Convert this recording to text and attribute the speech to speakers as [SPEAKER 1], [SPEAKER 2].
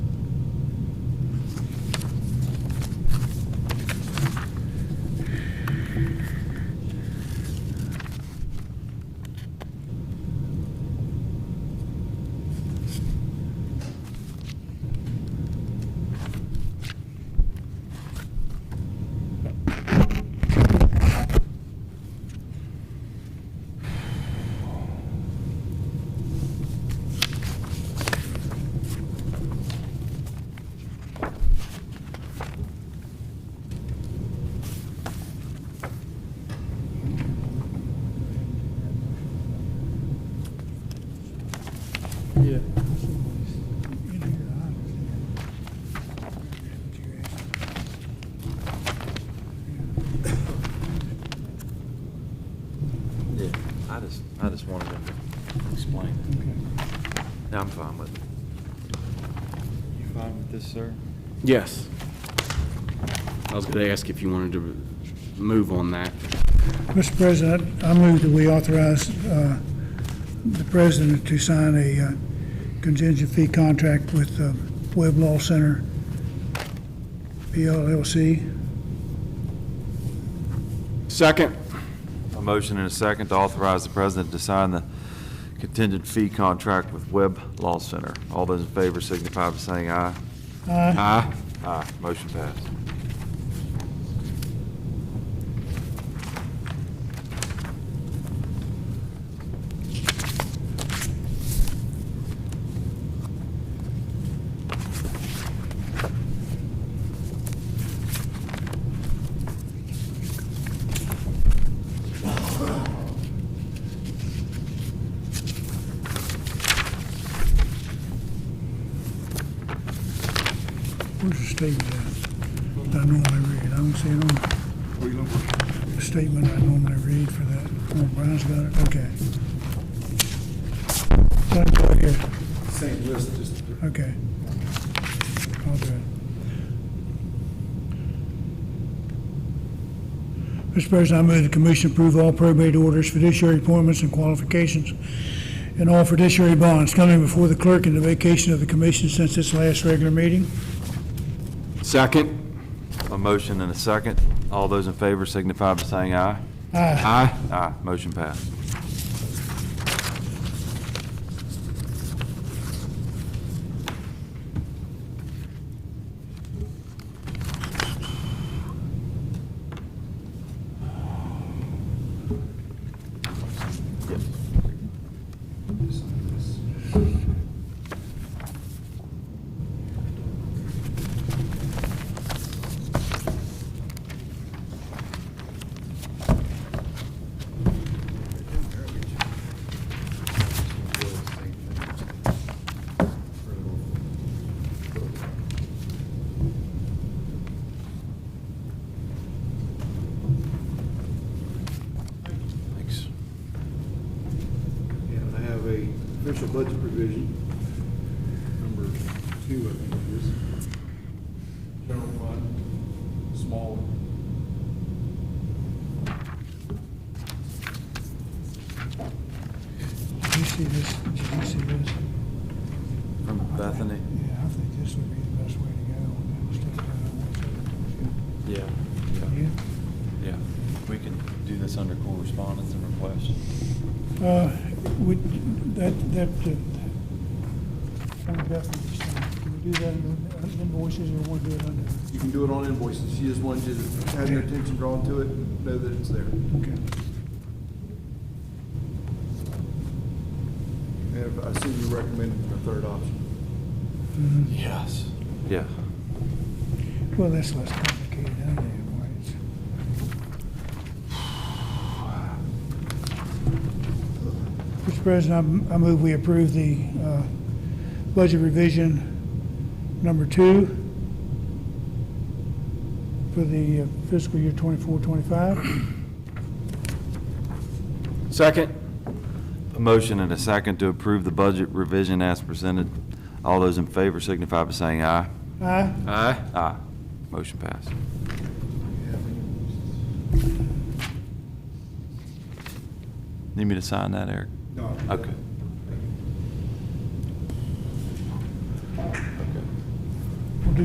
[SPEAKER 1] wanted him to explain it. No, I'm fine with it.
[SPEAKER 2] You fine with this, sir?
[SPEAKER 3] Yes. I was going to ask if you wanted to move on that.
[SPEAKER 4] Mr. President, I move that we authorize uh, the president to sign a uh, contingent fee contract with uh, Webb Law Center, PLLC.
[SPEAKER 3] Second.
[SPEAKER 2] A motion and a second to authorize the president to sign the contingent fee contract with Webb Law Center. All those in favor signify by saying aye.
[SPEAKER 3] Aye.
[SPEAKER 2] Aye. Motion passed.
[SPEAKER 4] Where's the statement at? I normally read, I don't see it on. The statement I normally read for that. Oh, Brian's got it, okay. Same right here.
[SPEAKER 5] Same list, just
[SPEAKER 4] Okay. I'll do it. Mr. President, I move the commission approve all probate orders, fiduciary appointments, and qualifications, and all fiduciary bonds coming before the clerk in the vacation of the commission since its last regular meeting.
[SPEAKER 3] Second.
[SPEAKER 2] A motion and a second. All those in favor signify by saying aye.
[SPEAKER 4] Aye.
[SPEAKER 3] Aye.
[SPEAKER 2] Aye. Motion passed. Thanks.
[SPEAKER 5] And I have a official budget provision, number two, I think it is. General fund, small.
[SPEAKER 4] Did you see this? Did you see this?
[SPEAKER 2] From Bethany?
[SPEAKER 4] Yeah, I think this would be the best way to go. when that stuff down.
[SPEAKER 2] Yeah. Yeah. We can do this under correspondence and request.
[SPEAKER 4] Yeah. Uh, would, that, that, uh, can we do that in uh, invoices or we'll do it under?
[SPEAKER 5] You can do it on invoices, she just wanted you to have your attention drawn to it, and know that it's there.
[SPEAKER 4] Okay.
[SPEAKER 5] And I assume you recommend the third option.
[SPEAKER 2] Yes. Yeah.
[SPEAKER 4] Well, that's less complicated, I know, right? Mr. President, I I move we approve the uh, budget revision number two for the uh, fiscal year 24, 25.
[SPEAKER 3] Second.
[SPEAKER 2] A motion and a second to approve the budget revision as presented. All those in favor signify by saying aye.
[SPEAKER 4] Aye.
[SPEAKER 3] Aye.
[SPEAKER 2] Aye. Motion passed. Need me to sign that, Eric?
[SPEAKER 5] No.
[SPEAKER 2] Okay.